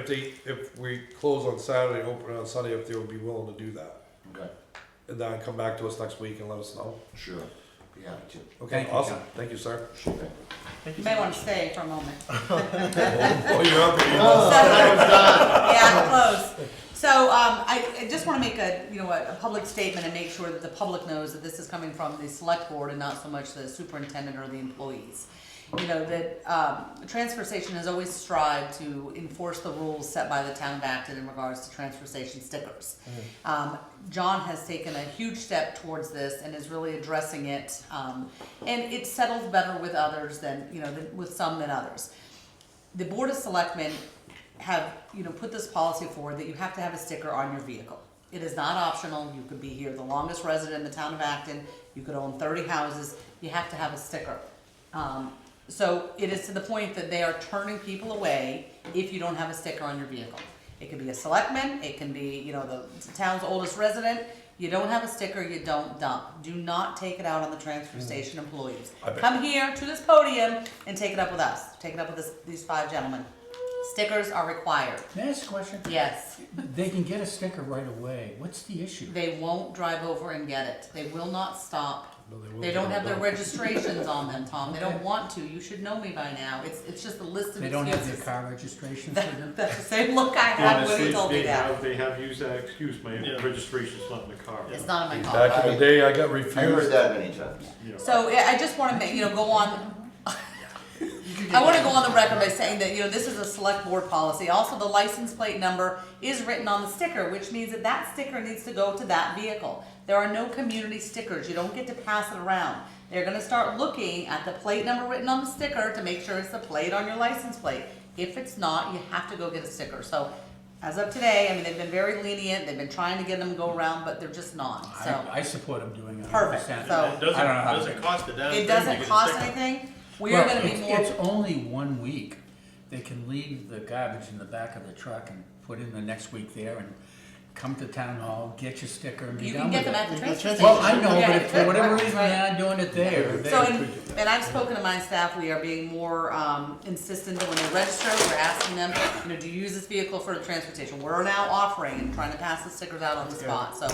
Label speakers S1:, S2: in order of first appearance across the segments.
S1: If they, if we close on Saturday, open on Sunday, if they would be willing to do that.
S2: Okay,
S1: And then come back to us next week and let us know.
S2: sure, be happy to.
S1: Okay,
S2: Thank you,
S1: awesome.
S2: John.
S1: Thank you, sir.
S2: Sure thing.
S3: You may want to stay for a moment.
S1: Oh, you're up here.
S3: Yeah, close. So um, I I just want to make a, you know, a a public statement and make sure that the public knows that this is coming from the select board and not so much the superintendent or the employees. You know, that um, the transfer station has always strived to enforce the rules set by the town of Acton in regards to transfer station stickers. Um, John has taken a huge step towards this and is really addressing it. um, And it settles better with others than, you know, than- with some than others the board of selectmen have, you know, put this policy forward that you have to have a sticker on your vehicle. It is not optional, you could be here the longest resident in the town of Acton, you could own thirty houses, you have to have a sticker. Um, so it is to the point that they are turning people away if you don't have a sticker on your vehicle. It could be a selectman, it can be, you know, the town's oldest resident, you don't have a sticker, you don't dump. Do not take it out on the transfer station employees.
S1: Hmm. I bet-
S3: Come here to this podium and take it up with us, take it up with this, these five gentlemen. Stickers are required,
S4: Can I ask a question?
S3: yes.
S4: They can get a sticker right away. What's the issue?
S3: They won't drive over and get it, they will not stop.
S4: No, they will
S3: They don't
S4: get
S3: have
S4: it
S3: their
S4: done.
S3: registrations on them, Tom, they don't
S4: Okay.
S3: want to, you should know me by now, it's, it's just a list of
S4: They don't have their
S3: excuses.
S4: car registration for them?
S3: That- That's the same look I had when he
S5: Honestly,
S3: told me
S5: they
S3: that,
S5: have, they have used that excuse, my registration's not in the car.
S3: it's not in my car.
S1: Back in the day, I got
S2: I heard
S1: refused.
S2: that many times.
S5: You know.
S3: So I I just wanna make, you know, go on, I wanna go on the record by saying that, you know, this is a select board policy. Also, the license plate number is written on the sticker, which means that that sticker needs to go to that vehicle. There are no community stickers, you don't get to pass it around. They're gonna start looking at the plate number written on the sticker to make sure it's the plate on your license plate. If it's not, you have to go get a sticker, so as of today, I mean, they've been very lenient, they've been trying to get them to go around, but they're just not, so.
S4: I, I support them doing it.
S3: Perfect,
S4: 100%.
S3: so-
S6: It doesn't,
S4: I don't know how to
S6: doesn't
S4: do
S6: cost a damn thing.
S3: It
S6: to
S3: doesn't
S6: get a
S3: cost
S6: sticker.
S3: anything, we are
S4: Well,
S3: gonna be
S4: it's-
S3: more.
S4: It's only one week. They can leave the garbage in the back of the truck and put in the next week there and come to town hall, get your sticker and be
S3: You can
S4: done
S3: get
S4: with
S3: them at
S4: it.
S3: the transfer station.
S4: Well, I know,
S3: Yeah,
S4: but if for whatever
S3: right,
S4: reason
S3: right.
S4: they're not doing it there, they.
S3: So, and, and I've spoken to my staff, we are being more, um, insistent that when they register, we're asking them, you know, do you use this vehicle for the transportation? We're now offering and trying to pass the stickers out on the spot, so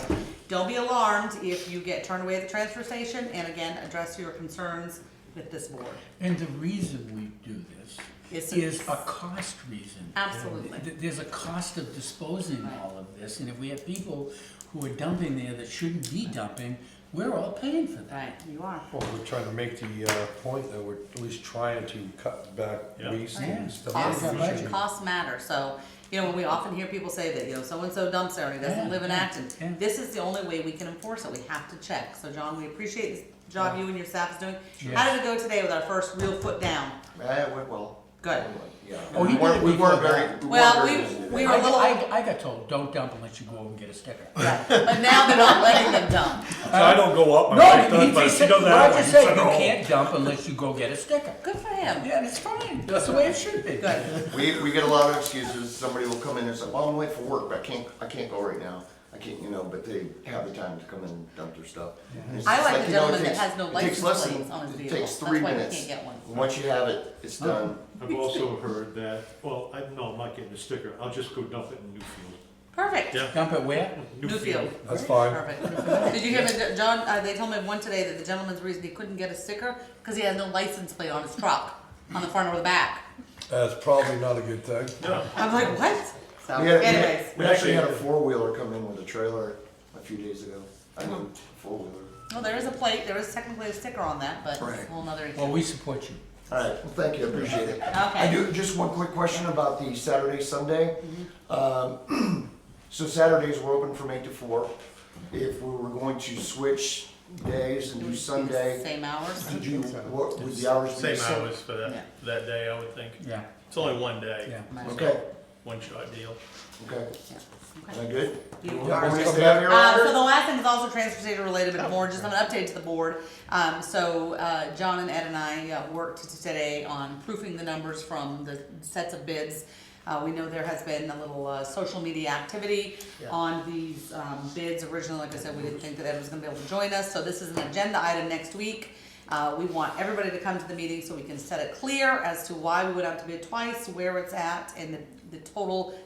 S3: don't be alarmed if you get turned away at the transfer station, and again, address your concerns with this board.
S4: And the reason we do this
S3: It's a-
S4: is a cost reason.
S3: Absolutely.
S4: Th- There's a cost of disposing all of this, and if we have people who are dumping there that shouldn't be dumping, we're all paying for that.
S3: Right, you are.
S1: Well, we're trying to make the, uh, point that we're at least trying to cut back
S5: Yeah.
S1: waste
S4: Yeah.
S1: and stuff.
S3: Costs,
S4: Yeah, budget.
S3: costs matter, so, you know, when we often hear people say that, you know, so-and-so dumps there and he doesn't
S4: Yeah,
S3: live in
S4: yeah,
S3: Acton.
S4: yeah.
S3: This is the only way we can enforce it, we have to check, so John, we appreciate the job you and your staff is doing. How
S4: Yes.
S3: did it go today with our first real foot down?
S2: Eh, it went well.
S3: Good.
S2: Yeah.
S4: Oh,
S2: We
S4: you
S2: weren't,
S4: did
S2: we
S4: it
S2: weren't
S4: before
S2: very,
S4: that.
S2: we
S3: Well,
S2: weren't very
S3: we-
S2: busy
S3: we
S2: there.
S3: were a
S4: I,
S3: little-
S4: I, I got told, don't dump unless you go over and get a sticker.
S1: Oh,
S3: But now they're not letting them dump.
S1: So I don't go up, my wife
S4: No,
S1: does,
S4: he
S1: but
S4: just
S1: she
S4: said,
S1: doesn't have one.
S4: Roger
S1: She
S4: said, you
S1: said, "No."
S4: can't dump unless you go get a sticker.
S3: Good for him,
S4: Yeah, and it's fine, that's the way it should be.
S3: good.
S2: We, we get a lot of excuses, somebody will come in and say, well, I'm late for work, but I can't, I can't go right now. I can't, you know, but they have the time to come in and dump their stuff. And it's
S3: I
S2: just
S3: like the
S2: you know, it
S3: gentleman that
S2: takes-
S3: has no
S2: it takes
S3: license
S2: less than-
S3: plates on his
S2: It
S3: vehicle.
S2: takes
S3: That's
S2: three
S3: why we
S2: minutes.
S3: can't get one. Oh.
S2: Once you have it, it's done.
S5: I've also heard that, well, I, no, I'm not getting a sticker, I'll just go dump it in Newfield.
S3: Perfect,
S5: Yeah.
S4: Dump it where?
S3: Newfield.
S1: That's fine.
S3: Perfect. Did you hear that, John, uh, they told me one today that the gentleman's reason he couldn't get a sticker, cause he has no license plate on his truck, on the front or the back.
S1: That's probably not a good thing.
S3: I'm like, what? So
S2: We had- we had-
S3: anyways,
S2: We actually had a four-wheeler come in with a trailer a few days ago. I
S3: Uh-huh.
S2: mean, four-wheeler.
S3: well, there is a plate, there is technically a sticker on that, but it's a
S2: Right.
S3: whole nother issue.
S4: Well, we support you.
S2: All right, well, thank you, I appreciate it. I
S3: Okay,
S2: do, just one quick question about the Saturday, Sunday.
S3: Mm-hmm.
S2: Um, So Saturdays were open from eight to four. If we were going to switch days and do Sunday,
S3: same hours?
S2: did you, what, would the hours be the
S6: Same
S2: same?
S6: hours for
S3: Yeah.
S6: that, that day, I would think.
S4: Yeah,
S6: It's only one day,
S4: yeah.
S2: Okay,
S6: one shot deal.
S2: okay,
S3: Yeah.
S2: am
S3: Okay.
S2: I good?
S3: You
S2: You
S3: are
S2: want me to
S1: good.
S2: stay out here
S3: Um, so
S2: longer?
S3: the last thing is also transportation related, but more just an update to the board. Um, so, uh, John and Ed and I uh, worked today on proofing the numbers from the sets of bids. Uh, we know there has been a little, uh, social media activity on these, um, bids originally, like I said, we didn't think that Ed was gonna be able to join us, so this is an agenda item next week. Uh, we want everybody to come to the meeting so we can set it clear as to why we went out to bid twice, where it's at, and the the total